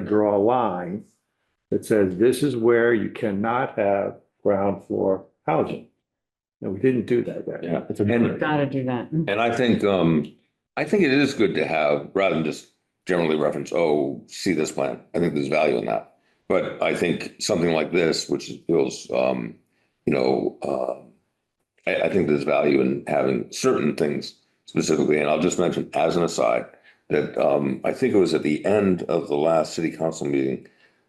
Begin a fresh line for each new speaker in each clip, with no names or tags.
draw a line that says this is where you cannot have ground floor housing. And we didn't do that there.
Yeah.
And
Gotta do that.
And I think, um, I think it is good to have, rather than just generally reference, oh, see this plan. I think there's value in that. But I think something like this, which feels, um, you know, uh, I, I think there's value in having certain things specifically. And I'll just mention as an aside that, um, I think it was at the end of the last city council meeting,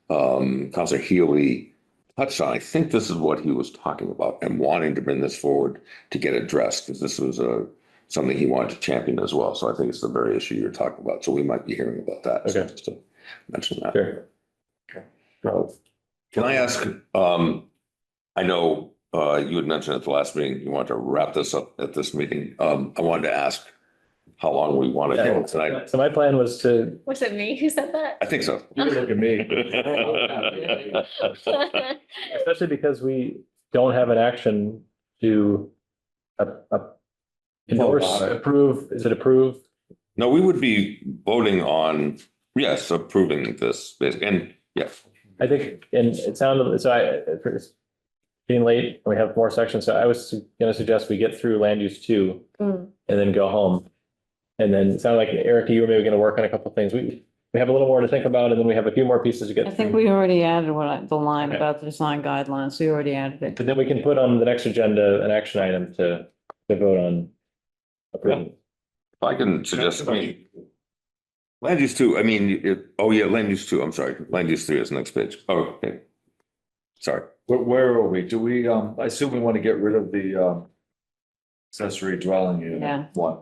um, Councilor Healy touched on, I think this is what he was talking about and wanting to bring this forward to get addressed, because this was a, something he wanted to champion as well. So I think it's the very issue you're talking about. So we might be hearing about that. So
Okay.
just to Mention that.
Sure.
so,
Can I ask, um, I know, uh, you had mentioned at the last meeting, you wanted to wrap this up at this meeting. Um, I wanted to ask how long we want to go tonight.
So my plan was to,
Was it me who said that?
I think so.
you can look at me, especially because we don't have an action to uh, uh, endorse, approve, is it approve?
No, we would be voting on, yes, approving this, basi- and yes,
I think, and it sounded, so I, it's being late, we have more sections, so I was gonna suggest we get through land use two
Mm.
and then go home. And then it sounded like Erica, you were maybe gonna work on a couple things. We, we have a little more to think about and then we have a few more pieces to get.
I think
through.
we already added what I, the line
Okay.
about the design guidelines, we already added it.
But then we can put on the next agenda an action item to, to vote on. approving.
if I can suggest, I mean, land use two, I mean, it, oh yeah, land use two, I'm sorry, land use three is next page. Oh, okay. Sorry.
Where, where are we? Do we, um, I assume we want to get rid of the, um, accessory dwelling unit.
Yeah.
One.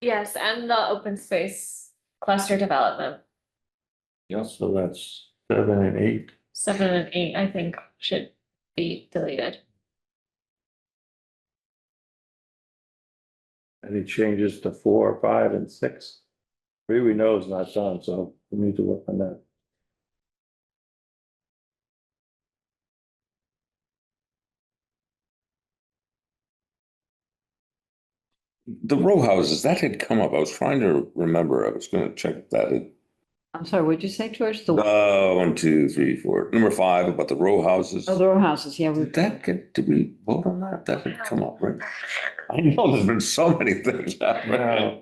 Yes, and the open space cluster development,
Yes.
so that's seven and eight.
seven and eight, I think should be deleted.
Any changes to four, five and six? Three we know is not done, so we need to work on that.
The row houses, that had come up. I was trying to remember. I was gonna check that.
I'm sorry, what'd you say, George? The
Uh, one, two, three, four, number five about the row houses.
oh, the row houses, yeah, we,
Did that get, did we vote on that? That had come up, right? I know there's been so many things happening.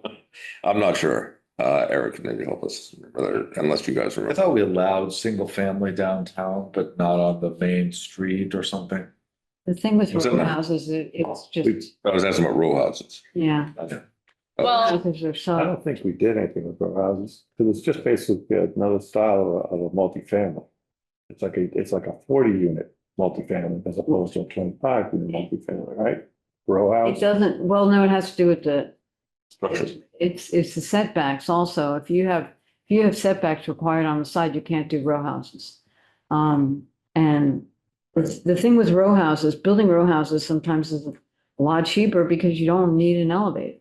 I'm not sure. Uh, Eric can maybe help us, whether- unless you guys
I
remember.
thought we allowed single family downtown, but not on the main street or something.
the thing with
Was it
row
not?
houses, it- it's
We-
just,
I was asking about row houses.
yeah.
Well,
Houses are
I
so,
don't think we did anything with row houses, because it's just basically another style of a- of a multifamily. It's like a, it's like a forty unit multifamily as opposed to a twenty-five unit multifamily, right? Row
it
house.
doesn't, well, no, it has to do with the,
Structures.
it's, it's the setbacks also. If you have, if you have setbacks required on the side, you can't do row houses. Um, and it's, the thing with row houses, building row houses sometimes is a lot cheaper because you don't need an elevator.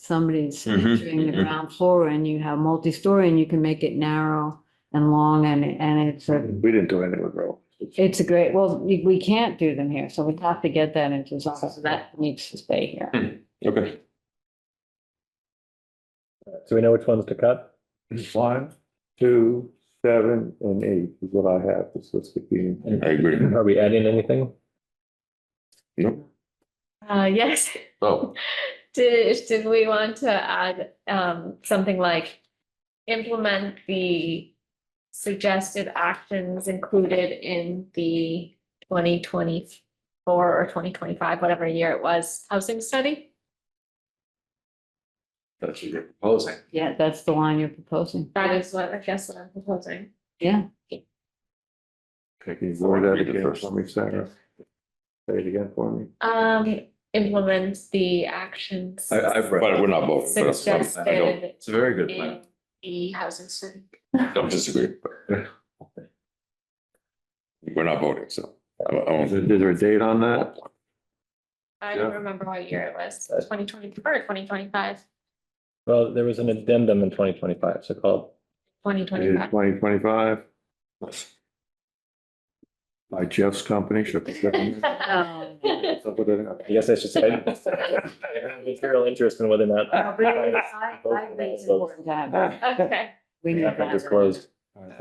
Somebody's
Mhm,
doing the
mhm.
ground floor and you have multi-story and you can make it narrow and long and, and it's a,
We didn't do anything with row.
it's a great, well, we, we can't do them here, so we have to get that into, so that needs to stay here.
Okay.
So we know which ones to cut?
One, two, seven, and eight is what I have, this list of being.
I agree.
Are we adding anything?
uh, yes,
Oh,
did, did we want to add, um, something like implement the suggested actions included in the twenty twenty-four or twenty twenty-five, whatever year it was, housing study?
That's what you're proposing.
Yeah, that's the line you're proposing.
That is what, I guess what I'm proposing.
Yeah.
Can you word that
Read it
again
first.
for me, Sarah? Say it again for me.
Um, implement the actions.
I, I've
but we're
read. it.
not voting. but that's- I don't-
Suggested
It's a very good plan.
in the housing study.
Don't disagree. but- We're not voting, so. I I
Is there
won't-
is there a date on that?
I don't
Yeah.
remember what year it was, twenty twenty-four or twenty twenty-five,
Well, there was an addendum in twenty twenty-five, so called.
twenty twenty-five.
Twenty twenty-five by Jeff's company, should be.
Um,
So put it up.
I guess I should say. I have Material interest
Oh,
in whether or not.
No, but it is- I- I think it's important to have-
Um, Okay,
we need
After
that.
disclosed.
All right,